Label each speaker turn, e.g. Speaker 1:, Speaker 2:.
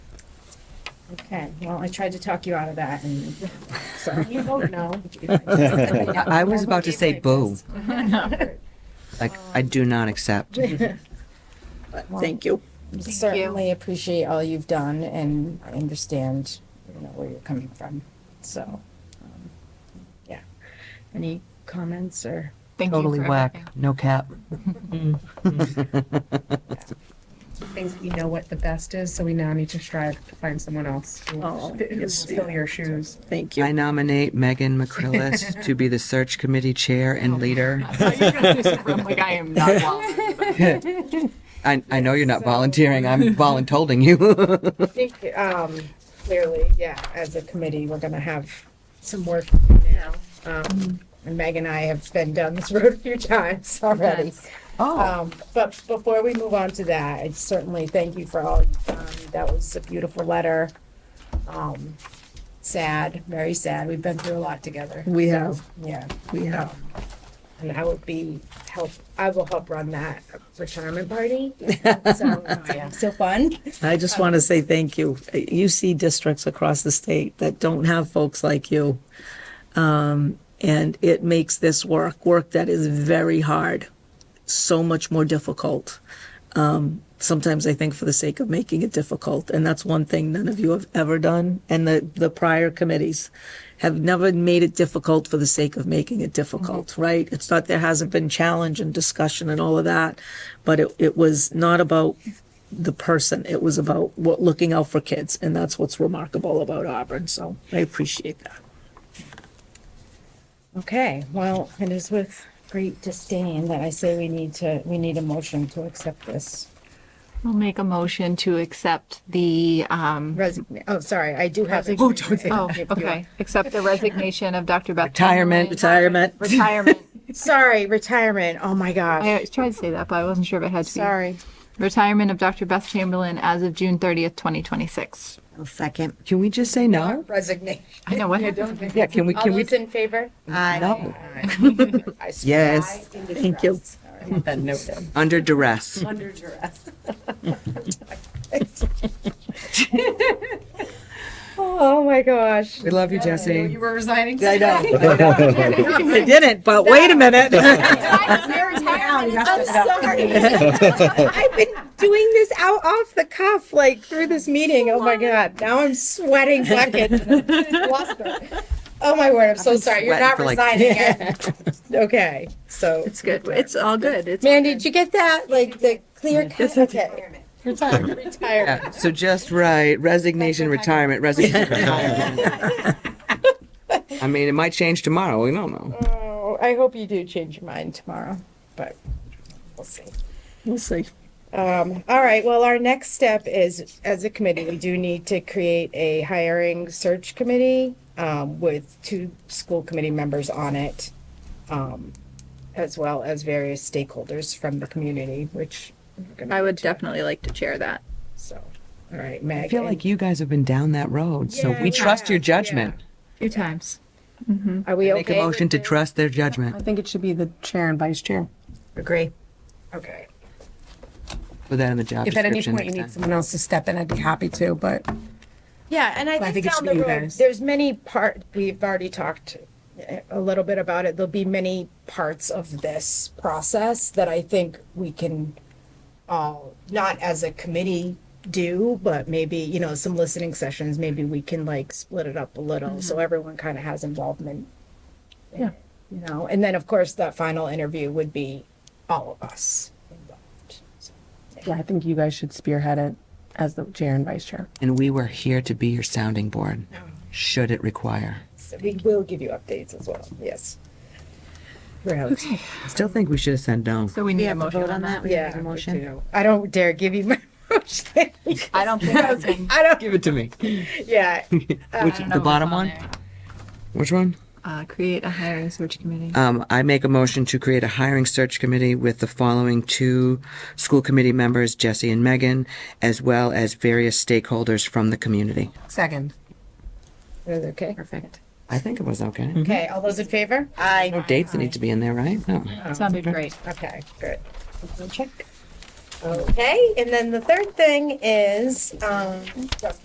Speaker 1: Okay, well, I tried to talk you out of that and so you vote no.
Speaker 2: I was about to say boo.
Speaker 1: No.
Speaker 2: Like, I do not accept.
Speaker 3: Thank you.
Speaker 1: Certainly appreciate all you've done and I understand, you know, where you're coming from, so. um, Yeah. Any comments or?
Speaker 4: Thank
Speaker 2: Totally
Speaker 4: you for
Speaker 2: whack.
Speaker 4: everything.
Speaker 2: No cap.
Speaker 5: think we know what the best is, so we now need to strive to find someone else who
Speaker 3: Oh,
Speaker 5: will
Speaker 3: yes,
Speaker 5: fill your shoes.
Speaker 3: Thank you.
Speaker 2: I nominate Megan McCrillis to be the search committee chair and leader.
Speaker 4: I thought you were gonna say something like I am not well.
Speaker 2: I, I know you're not volunteering. I'm voluntolding you.
Speaker 1: I think, um, clearly, yeah, as a committee, we're gonna have some work to do now. Um, and Meg and I have been down this road a few times already.
Speaker 6: Oh.
Speaker 1: Um, but before we move on to that, I certainly thank you for all you've done. That was a beautiful letter. Um, sad, very sad. We've been through a lot together.
Speaker 3: We
Speaker 1: So,
Speaker 3: have.
Speaker 6: Mm-hmm.
Speaker 1: Yeah.
Speaker 3: We have.
Speaker 1: Um, And I would be help, I will help run that retirement party. So, yeah.
Speaker 6: So fun.
Speaker 3: I just want to say thank you. You see districts across the state that don't have folks like you. Um, and it makes this work, work that is very hard, so much more difficult. Um, sometimes I think for the sake of making it difficult. And that's one thing none of you have ever done. And the, the prior committees have never made it difficult for the sake of making it difficult, right? It's not, there hasn't been challenge and discussion and all of that, but it, it was not about the person. It was about what looking out for kids, and that's what's remarkable about Auburn. So I appreciate that.
Speaker 1: Okay, well, it is with great disdain that I say we need to, we need a motion to accept this.
Speaker 4: We'll make a motion to accept the, um,
Speaker 1: Resign, oh, sorry, I do have. Oh, don't.
Speaker 4: oh, okay, accept the resignation of Dr. Beth.
Speaker 2: Retirement,
Speaker 3: Retirement.
Speaker 4: Retirement.
Speaker 1: Sorry, retirement. Oh, my gosh.
Speaker 4: I tried to say that, but I wasn't sure if it had to be.
Speaker 1: Sorry.
Speaker 4: Retirement of Dr. Beth Chamberlain as of June 30th, 2026.
Speaker 6: I'll second.
Speaker 2: Can we just say no?
Speaker 1: Resignation.
Speaker 4: I know what happened.
Speaker 2: Yeah, can we,
Speaker 1: All
Speaker 2: can we?
Speaker 1: those in favor?
Speaker 2: No.
Speaker 1: I swear
Speaker 2: Yes.
Speaker 1: I am
Speaker 3: Thank you.
Speaker 1: distressed.
Speaker 2: Under duress.
Speaker 1: Under duress. Oh, my gosh.
Speaker 2: We love you, Jesse.
Speaker 5: were resigning.
Speaker 2: I know.
Speaker 3: I didn't, but wait a minute.
Speaker 1: I'm sorry. I've been doing this out off the cuff, like through this meeting. Oh my god, now I'm sweating buckets. Lost them. Oh my word, I'm so sorry. You're
Speaker 2: sweating
Speaker 1: not
Speaker 2: for, like-
Speaker 1: resigning it. Okay, so
Speaker 3: it's good. It's all good. It's
Speaker 1: Mandy, did you get that? Like the clear cut. Okay. Retirement. Retirement.
Speaker 2: Yeah, So just right, resignation, retirement, resignation, retirement. I mean, it might change tomorrow. We don't know.
Speaker 1: Oh, I hope you do change your mind tomorrow, but we'll see.
Speaker 3: we'll see.
Speaker 1: Um, all right, well, our next step is, as a committee, we do need to create a hiring search committee, um, with two school committee members on it, um, as well as various stakeholders from the community, which, we're gonna
Speaker 4: I would
Speaker 1: get to,
Speaker 4: definitely like to chair that.
Speaker 1: so, all right,
Speaker 2: I
Speaker 1: Meg.
Speaker 2: feel like you guys have been down that road, so
Speaker 1: Yeah,
Speaker 2: we
Speaker 1: we
Speaker 2: trust your
Speaker 1: have, yeah.
Speaker 2: judgment.
Speaker 4: Two times.
Speaker 1: Are we
Speaker 2: Make a
Speaker 1: okay?
Speaker 2: motion to trust their judgment.
Speaker 5: I think it should be the chair and vice chair.
Speaker 1: Agree. Okay.
Speaker 2: Put that in the job
Speaker 5: If at any
Speaker 2: description
Speaker 5: point you
Speaker 2: next
Speaker 5: need
Speaker 2: time.
Speaker 5: someone else to step in, I'd be happy to, but
Speaker 1: Yeah, and I
Speaker 5: I
Speaker 1: think
Speaker 5: think it
Speaker 1: down
Speaker 5: should
Speaker 1: the
Speaker 5: be you
Speaker 1: road,
Speaker 5: guys.
Speaker 1: there's many part, we've already talked eh, a little bit about it. There'll be many parts of this process that I think we can all, not as a committee do, but maybe, you know, some listening sessions, maybe we can like split it up a little, so everyone kind of has involvement. in it, You know, and then of course, that final interview would be all of us involved. So,
Speaker 5: yeah, I think you guys should spearhead it as the chair and vice chair.
Speaker 2: And we were here to be your sounding board, should it require.
Speaker 1: so We will give you updates as well, yes.
Speaker 2: I still think we should have said no.
Speaker 4: So we need a motion on that.
Speaker 1: Yeah. me too. I don't dare give you my motion.
Speaker 4: I don't think I can.
Speaker 1: I don't,
Speaker 2: Give it to me.
Speaker 1: yeah.
Speaker 5: Uh,
Speaker 2: Which, the bottom one? Which one?
Speaker 4: Uh, create a hiring search committee.
Speaker 2: Um, I make a motion to create a hiring search committee with the following two school committee members, Jesse and Megan, as well as various stakeholders from the community.
Speaker 5: Second.
Speaker 1: Is it Okay.
Speaker 4: Perfect.
Speaker 2: I think it was okay.
Speaker 5: Mm-hmm.
Speaker 1: Okay, all those in favor?
Speaker 2: No dates that need to be in there, right? No.
Speaker 4: Sounded great.
Speaker 1: Okay, good. Check. Okay, and then the third thing is, um,